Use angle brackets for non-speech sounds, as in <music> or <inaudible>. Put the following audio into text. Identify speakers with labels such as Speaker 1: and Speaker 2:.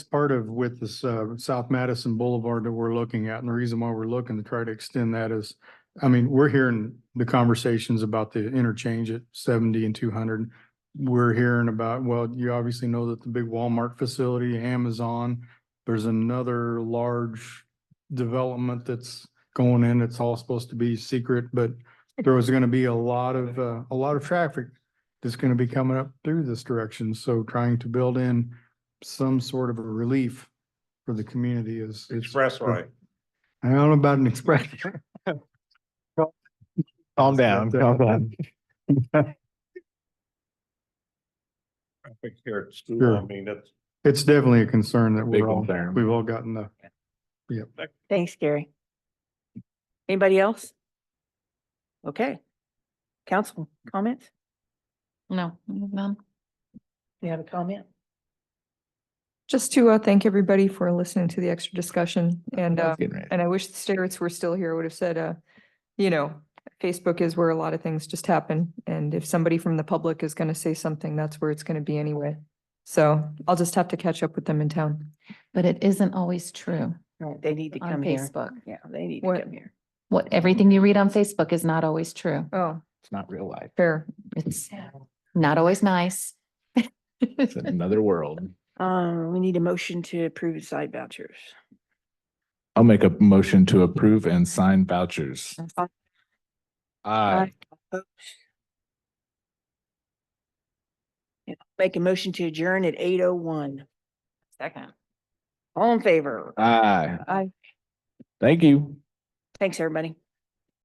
Speaker 1: part of with this uh, South Madison Boulevard that we're looking at, and the reason why we're looking to try to extend that is, I mean, we're hearing the conversations about the interchange at seventy and two hundred. We're hearing about, well, you obviously know that the big Walmart facility, Amazon, there's another large development that's going in. It's all supposed to be secret, but there was going to be a lot of, uh, a lot of traffic that's going to be coming up through this direction. So trying to build in some sort of a relief for the community is. is-
Speaker 2: Expressway.
Speaker 1: I don't know about an express.
Speaker 3: Calm down, calm down.
Speaker 1: <laughs>
Speaker 2: I think Here at school,
Speaker 1: Sure.
Speaker 2: I mean, that's,
Speaker 1: It's definitely a concern that
Speaker 3: Big
Speaker 1: we're all,
Speaker 3: concern.
Speaker 1: we've all gotten the,
Speaker 4: Thanks, Gary. Anybody else? Okay. Council comments?
Speaker 5: No, none.
Speaker 4: You have a comment?
Speaker 6: Just to uh, thank everybody for listening to the extra discussion and, uh,
Speaker 3: Getting ready.
Speaker 6: and I wish the Starets were still here, would have said, uh, you know, Facebook is where a lot of things just happen. And if somebody from the public is going to say something, that's where it's going to be anyway. So I'll just have to catch up with them in town.
Speaker 5: But it isn't always true
Speaker 4: No, they need to
Speaker 5: on
Speaker 4: come here.
Speaker 5: Facebook.
Speaker 4: Yeah, they need to
Speaker 6: What-
Speaker 4: come here.
Speaker 5: What, everything you read on Facebook is not always true.
Speaker 6: Oh,
Speaker 3: It's not real life.
Speaker 6: fair.
Speaker 5: It's not always nice. <laughs>
Speaker 3: It's another world.
Speaker 4: Um, we need a motion to approve side vouchers.
Speaker 3: I'll make a motion to approve and sign vouchers.
Speaker 5: <laughs>
Speaker 4: Aye.
Speaker 3: Aye.
Speaker 4: Yeah, Make a motion to adjourn at eight oh one.
Speaker 5: Second.
Speaker 4: All in favor?
Speaker 3: Aye.
Speaker 6: Aye.
Speaker 3: Thank you.
Speaker 4: Thanks, everybody.